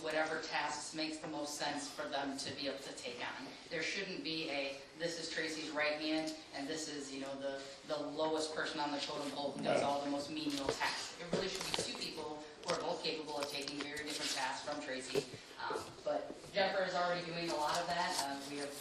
whatever tasks makes the most sense for them to be able to take on. There shouldn't be a, this is Tracy's right hand, and this is, you know, the, the lowest person on the totem pole who does all the most menial tasks. It really should be two people who are both capable of taking very different tasks from Tracy. Um, But Jennifer is already doing a lot of that. Uh, We have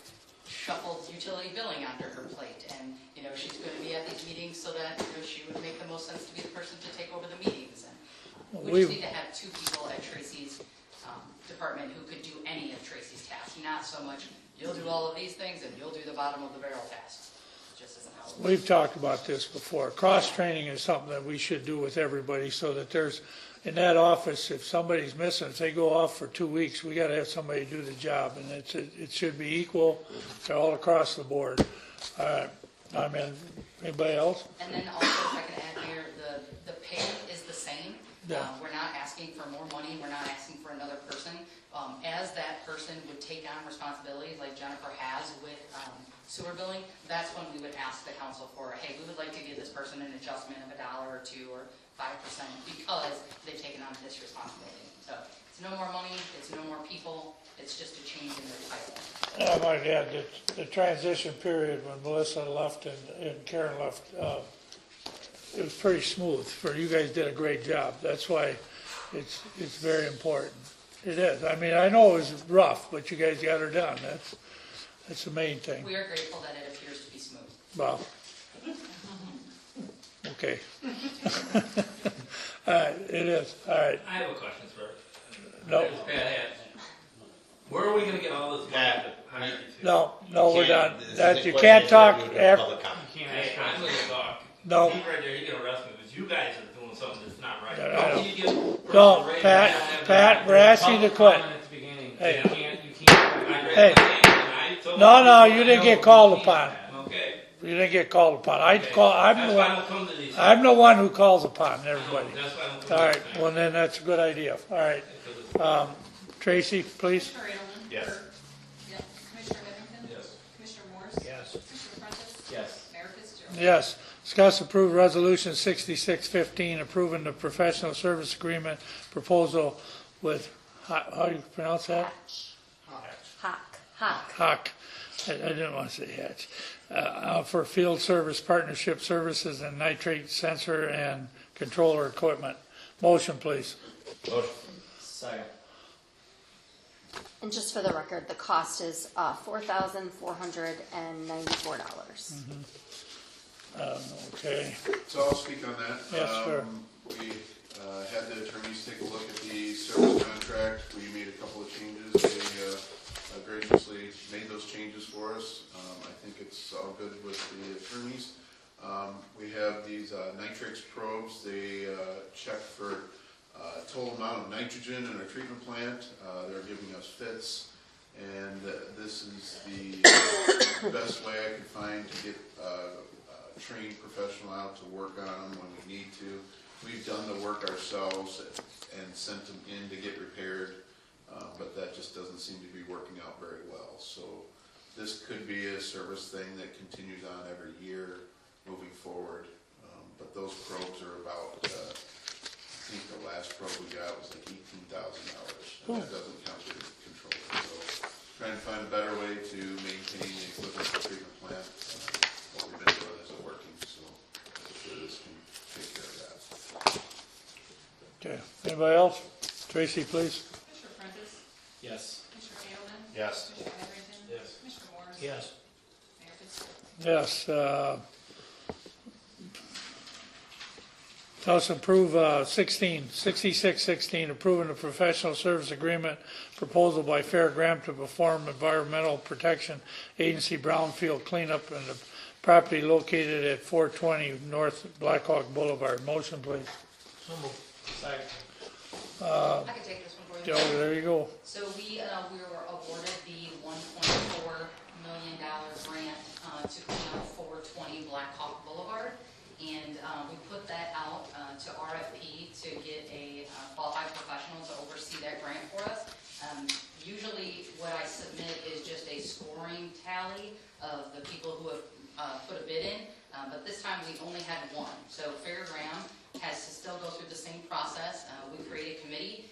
shuffled utility billing onto her plate, and, you know, she's going to be at these meetings so that, you know, she would make the most sense to be the person to take over the meetings. And we just We've- need to have two people at Tracy's um, department who could do any of Tracy's tasks, not so much, you'll do all of these things and you'll do the bottom of the barrel tasks. It Just isn't how it works. We've talked about this before. Cross-training is something that we should do with everybody so that there's, in that office, if somebody's missing, if they go off for two weeks, we gotta have somebody do the job. And it's, it it should be equal to all across the board. Uh, I mean, anybody else? And then also, if I can add here, the, the pay is the same. Yeah. Uh, We're not asking for more money, we're not asking for another person. Um, As that person would take on responsibilities like Jennifer has with um, sewer billing, that's when we would ask the council for, hey, we would like to give this person an adjustment of a dollar or two or five percent because they've taken on this responsibility. So it's no more money, it's no more people, it's just a change in their title. And I might add that the transition period when Melissa left and and Karen left, uh, it was pretty smooth. For, you guys did a great job. That's why it's, it's very important. It is. I mean, I know it was rough, but you guys got her done. That's, that's the main thing. We are grateful that it appears to be smooth. Well. Okay. All right, it is. All right. I have a question for, No, it's bad ass. Where are we gonna get all this money to hire you to? no, no, we're done. This is That, the you question can't talk that we do after, public comment. Can't ask, I'm gonna talk. No. He right there, he gonna arrest me, because you guys are doing something that's not right. No, no, no. Don't you give- No, Right, Pat- I have- Pat, we're asking you to quit. At the beginning, you Hey. can't, you can't. I- Hey. I told No, no, I you didn't know get you called can't. upon. Okay. you didn't get called upon. I okay. call, I'm the That's one. why I don't come to these. I'm the one who calls upon everybody. No, That's why I don't come to these. All right, things, well then, that's a good idea. All right, because it's- um, Tracy, please. Commissioner Edelman? Yes. Yep. Commissioner Whittington? Yes. Commissioner Morris? Yes. Commissioner Prentice? Yes. Mayor Fitzgerald? Yes, discuss approved resolution sixty-six fifteen, approving the professional service agreement proposal with, Ho- how do you pronounce that? Hawk, hawk. Hock, I I didn't want to say Hatch, Uh, uh, for field service partnership services and nitrate sensor and controller equipment. Motion, please. Motion. And just for the record, the cost is uh, $4,494. Okay, So I'll speak on that. Yes, sure. Um, We uh, had the attorneys take a look at the service contract. We made a couple of changes. They uh, uh, graciously made those changes for us. Um, I think it's all good with the attorneys. Um, We have these uh, nitrix probes. They uh, check for uh, total amount of nitrogen in our treatment plant. Uh, They're giving us fits. And uh, this is the uh, best way I could find to get uh, a trained professional out to work on them when we need to. We've done the work ourselves and sent them in to get repaired, uh, but that just doesn't seem to be working out very well. So this could be a service thing that continues on every year moving forward. Um, But those probes are about, uh, I think the last probe we got was like eighteen thousand dollars, and that doesn't count the controller. So trying to find a better way to maintain the equipment for treatment plant, uh, what we've been doing isn't working, so hopefully this can take care of that. okay. Anybody else? Tracy, please. Commissioner Prentice? Yes. Commissioner Edelman? Yes. Commissioner Whittington? Yes. Commissioner Morris? Yes. Mayor Fitzgerald? Yes. uh, Tell us approve uh, 16, 6616, approving the professional service agreement proposal by Fair Graham to perform environmental protection agency brownfield cleanup in the property located at 420 North Blackhawk Boulevard. Motion, please. So moved. Second. I can take this one for you. Joe, there you go. So we, uh, we were awarded the one point four million dollar grant, uh, to clean up four twenty Black Hawk Boulevard. And, uh, we put that out, uh, to RFP to get a uh, qualified professional to oversee that grant for us. Um, usually what I submit is just a scoring tally of the people who have, uh, put a bid in. Uh, but this time we only had one. So Fairground has to still go through the same process. Uh, we create a committee